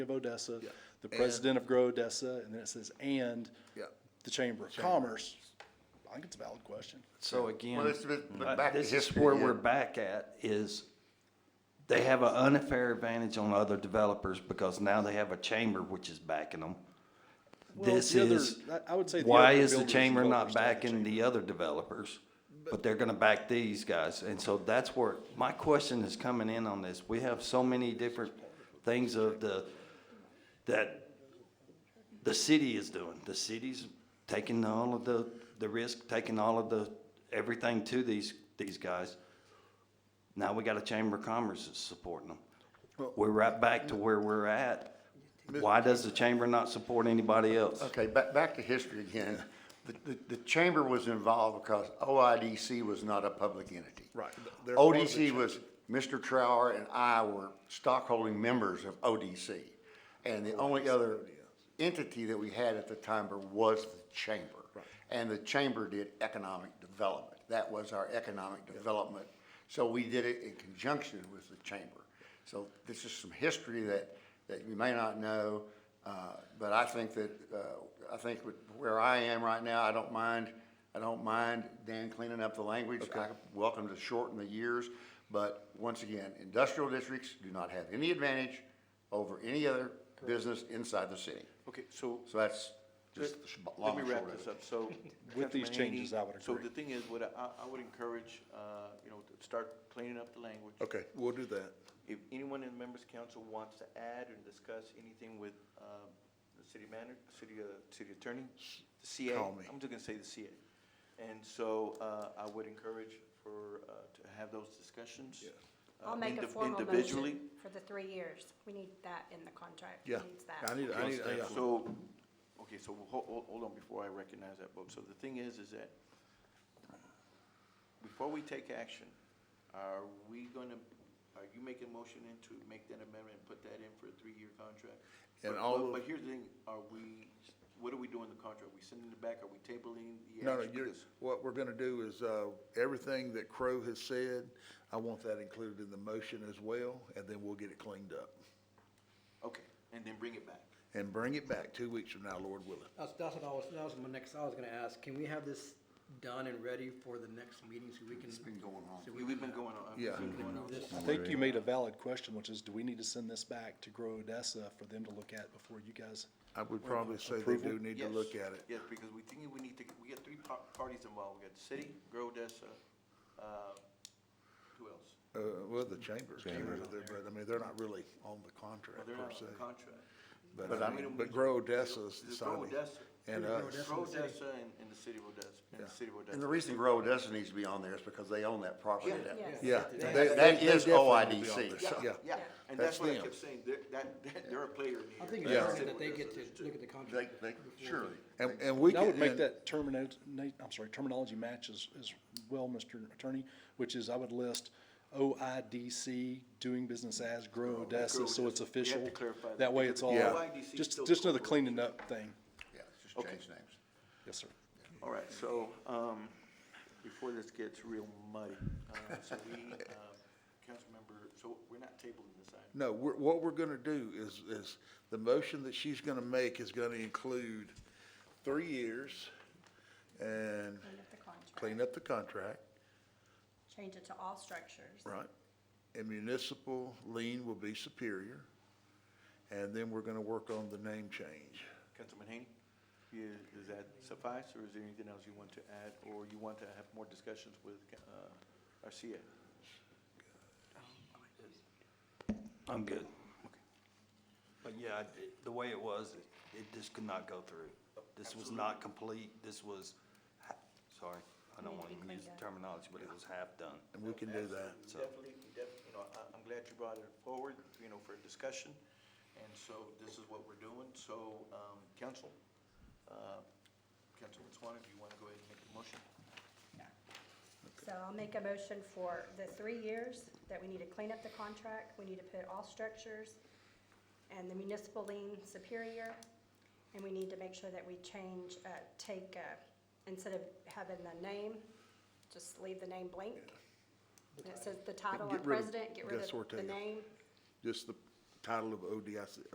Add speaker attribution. Speaker 1: of Odessa,
Speaker 2: Yeah.
Speaker 1: the president of Grow Odessa, and then it says, and
Speaker 2: Yeah.
Speaker 1: the Chamber of Commerce. I think it's a valid question.
Speaker 3: So again,
Speaker 2: Well, it's a bit- but
Speaker 3: uh,
Speaker 2: back to
Speaker 3: this is
Speaker 2: history,
Speaker 3: where
Speaker 2: yeah.
Speaker 3: we're back at is they have an unfair advantage on other developers because now they have a chamber which is backing them.
Speaker 1: Well,
Speaker 3: This
Speaker 1: the other-
Speaker 3: is,
Speaker 1: I- I would say the
Speaker 3: why
Speaker 1: other
Speaker 3: is the
Speaker 1: builders
Speaker 3: chamber
Speaker 1: and
Speaker 3: not
Speaker 1: developers don't have a
Speaker 3: backing the other developers? But they're gonna back these guys. And so that's where, my question is coming in on this. We have so many different things of the, that the city is doing. The city's taking all of the, the risk, taking all of the, everything to these, these guys. Now we got a Chamber of Commerce that's supporting them. We're right back to where we're at. Why does the chamber not support anybody else?
Speaker 2: Okay, back, back to history again. The, the, the chamber was involved because OIDC was not a public entity.
Speaker 1: Right. Th- there was a
Speaker 2: ODC was, Mr. Trower and I were stockholding members of ODC. And the only other entity that we had at the time was the chamber. And the chamber did economic development. That was our economic development. So we did it in conjunction with the chamber. So this is some history that, that you may not know, uh, but I think that, uh, I think with where I am right now, I don't mind, I don't mind Dan cleaning up the language. I welcome to shorten the years, but once again, industrial districts do not have any advantage over any other business inside the city.
Speaker 4: Okay, so,
Speaker 2: So that's just the sh- long
Speaker 4: let me
Speaker 2: and
Speaker 4: wrap
Speaker 2: short
Speaker 4: this
Speaker 2: of it.
Speaker 4: up, so.
Speaker 1: With these
Speaker 4: Councilman
Speaker 1: changes,
Speaker 4: Haney,
Speaker 1: I would
Speaker 4: So
Speaker 1: agree.
Speaker 4: the thing is, what I, I would encourage, uh, you know, to start cleaning up the language.
Speaker 5: Okay, we'll do that.
Speaker 4: If anyone in the members' council wants to add or discuss anything with, um, the city manager, city, uh, city attorney, the CA.
Speaker 5: Call me.
Speaker 4: I'm just gonna say the CA. And so, uh, I would encourage for, uh, to have those discussions. uh,
Speaker 6: I'll make a
Speaker 4: indi-
Speaker 6: formal
Speaker 4: Individually.
Speaker 6: motion for the three years. We need that in the contract.
Speaker 5: Yeah,
Speaker 6: He needs that.
Speaker 5: I need, I need, I- yeah.
Speaker 4: So, okay, so hold, hold on before I recognize that vote. So the thing is, is that before we take action, are we gonna, are you making a motion in to make that amendment and put that in for a three-year contract?
Speaker 5: And
Speaker 4: But-
Speaker 5: all
Speaker 4: but-
Speaker 5: of-
Speaker 4: But here's the thing, are we, what are we doing in the contract? We sending it back? Are we tabling the action?
Speaker 5: No, no, you're,
Speaker 4: Because-
Speaker 5: what we're gonna do is, uh, everything that Crow has said, I want that included in the motion as well, and then we'll get it cleaned up.
Speaker 4: Okay, and then bring it back.
Speaker 5: And bring it back two weeks from now, Lord willing.
Speaker 7: That's, that's what I was, that was my next, I was gonna ask, can we have this done and ready for the next meeting so we can? It's been going on.
Speaker 4: We- We've been going on.
Speaker 5: Yeah.
Speaker 4: we've been going on this.
Speaker 1: I think you made a valid question, which is, do we need to send this back to Grow Odessa for them to look at before you guys?
Speaker 5: I would probably say they
Speaker 1: Approval?
Speaker 5: do need to
Speaker 4: Yes,
Speaker 5: look at it.
Speaker 4: Yes, because we think we need to, we got three par- parties involved, we got the city, Grow Odessa, uh, who else?
Speaker 5: Uh, well, the chambers, chambers are there, but I mean, they're not really on the contract
Speaker 4: Well, they're not
Speaker 5: per
Speaker 4: on
Speaker 5: se.
Speaker 4: the contract.
Speaker 5: But I mean, but Grow Odessa's
Speaker 4: The Grow
Speaker 5: deciding.
Speaker 4: Odessa.
Speaker 5: And
Speaker 4: Grow
Speaker 5: us.
Speaker 4: Odessa and, and the city of Odessa, and the city of Odessa.
Speaker 2: And the reason Grow Odessa needs to be on there is because they own that property down there.
Speaker 6: Yes.
Speaker 5: Yeah.
Speaker 7: Yeah.
Speaker 5: they-
Speaker 2: That
Speaker 5: they-
Speaker 2: is
Speaker 5: they definitely need to be on
Speaker 2: OIDC.
Speaker 5: this, Yeah.
Speaker 4: Yeah, and
Speaker 5: That's
Speaker 4: that's what I
Speaker 5: them.
Speaker 4: kept saying, they're, that, that- they're a player in here.
Speaker 7: I think it's
Speaker 4: The
Speaker 5: Yeah.
Speaker 7: important
Speaker 4: city
Speaker 7: that
Speaker 4: of
Speaker 7: they
Speaker 4: Odessa
Speaker 7: get
Speaker 4: is
Speaker 7: to
Speaker 4: too.
Speaker 7: look at the
Speaker 2: They,
Speaker 7: contract.
Speaker 2: they, surely.
Speaker 5: And, and we
Speaker 1: And
Speaker 5: can.
Speaker 1: I would make
Speaker 5: and-
Speaker 1: that terminate, I'm sorry, terminology match as, as well, Mr. Attorney, which is I would list OIDC, doing business as Grow Odessa, so it's
Speaker 4: Odessa. We have to
Speaker 1: official.
Speaker 4: clarify that
Speaker 1: That way it's all,
Speaker 5: Yeah.
Speaker 4: OIDC is
Speaker 1: just,
Speaker 4: still
Speaker 1: just another
Speaker 4: corporation.
Speaker 1: cleaning up thing.
Speaker 2: Yeah, it's just
Speaker 4: Okay.
Speaker 2: change names.
Speaker 1: Yes, sir.
Speaker 4: All right, so, um, before this gets real muddy, uh, so we, um, Councilmember, so we're not tabling this item.
Speaker 5: No, we're, what we're gonna do is, is the motion that she's gonna make is gonna include three years and
Speaker 6: End of the contract.
Speaker 5: clean up the contract,
Speaker 6: Change it to all structures.
Speaker 5: right? And municipal lien will be superior. And then we're gonna work on the name change.
Speaker 4: Councilman Haney, you- does that suffice, or is there anything else you want to add, or you want to have more discussions with uh, our CA?
Speaker 3: I'm good. But yeah, I- it- the way it was, it- it just could not go through. This was not complete, this was, ha- sorry, I don't
Speaker 6: Need to
Speaker 3: want
Speaker 6: be
Speaker 3: to use
Speaker 6: cleaned
Speaker 3: the
Speaker 6: up.
Speaker 3: terminology, but it was half done.
Speaker 5: And we can do that.
Speaker 4: Absolutely, Definitely, we def- you know, I- I'm glad you brought it forward, you know, for discussion, and so this is what we're doing. So, um, council, uh, Councilman Swan, if you want to go ahead and make a motion.
Speaker 6: So I'll make a motion for the three years that we need to clean up the contract. We need to put all structures and the municipal lien superior. And we need to make sure that we change, uh, take, uh, instead of having the name, just leave the name blank. And it says the title
Speaker 5: Get
Speaker 6: and
Speaker 5: rid of-
Speaker 6: president, get rid
Speaker 5: that's
Speaker 6: of
Speaker 5: what we're
Speaker 6: the
Speaker 5: taking.
Speaker 6: name.
Speaker 5: Just the title of ODIC,